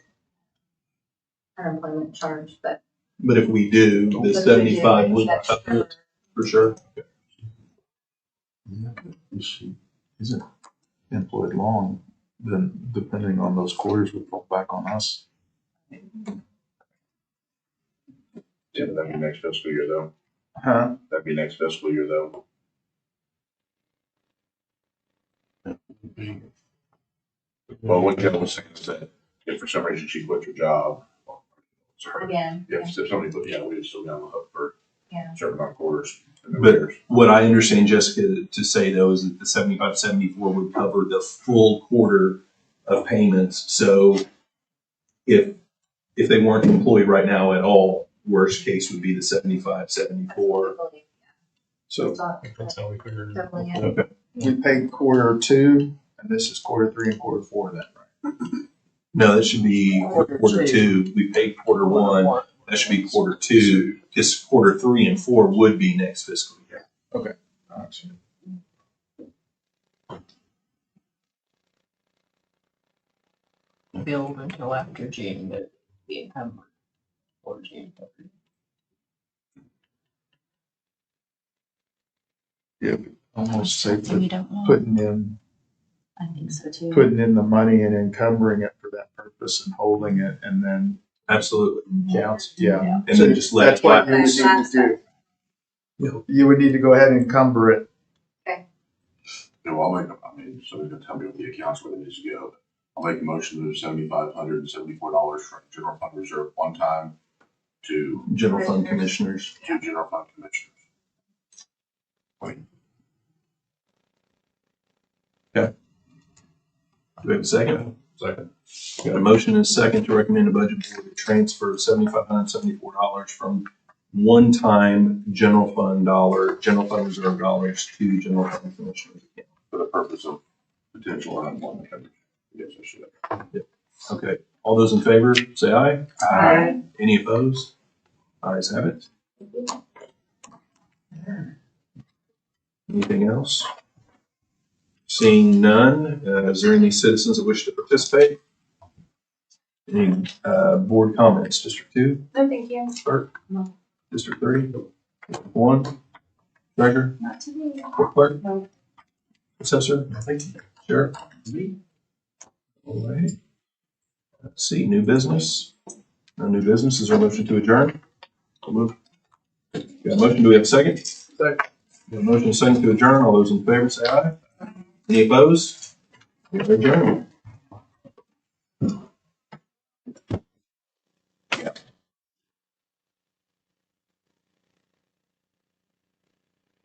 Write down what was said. unemployment charge, but. But if we do, the but if we do, seventy-five would that's cover it covered. for sure. If she isn't employed long, then depending on those quarters would fall back on us. Yeah, but that'd be next fiscal year though. Huh? That'd be next fiscal year though. Well, what Joe was saying is that if for some reason she quit her job, or- sorry, Again, yeah. if if somebody, quit, yeah, we would still be on the hook for Yeah. certain amount of quarters. and then But- years. What I understand Jessica to say though is that the seventy-five, seventy-four would cover the full quarter of payments. So if, if they weren't employed right now at all, worst case would be the seventy-five, seventy-four. So It's all- That's how we figured it Definitely, out. yeah. We paid quarter two, and this is quarter three and quarter four of that, right? no, that should be quarter two. We paid quarter one. That should be quarter two. This quarter three and four would be next fiscal year. Gotcha. billed until after June, but the income or June. Almost safe We to don't know. putting in, I think so too. putting in the money and encumbering it for that purpose and holding it and then Absolutely. Mm-hmm. counts, yeah. And then just let it That's what fly. you would need to do. You would need to go ahead and encumber it. No, I'll make, I mean, somebody's gonna tell me what the accounts where they need to go. I'll make a motion to move seventy-five hundred and seventy-four dollars from general fund reserve one time to, General fund commissioners. to general fund commissioners. Do we have a second? Second. Got a motion and a second to recommend a budget board to transfer seventy-five hundred seventy-four dollars from one-time general fund dollar, general fund reserve dollars to general fund commissioners. account. for the purpose of potential unemployment coverage. Yes, I should. Okay, all those in favor, say aye. Aye. Any opposed? Ayes have it. Anything else? Seeing none, uh, is there any citizens that wish to participate? Any, uh, board comments, District Two? No, thank you. Clerk? No. District three? One? Treasurer? Not today. Court clerk? No. Assessor? Sheriff? All right. Let's see, new business? No new business, is there a motion to adjourn? I'll move. Got a motion, do we have a second? Second. Got a motion, and a second to adjourn, all those in favor say aye. Any opposed? We are adjourned.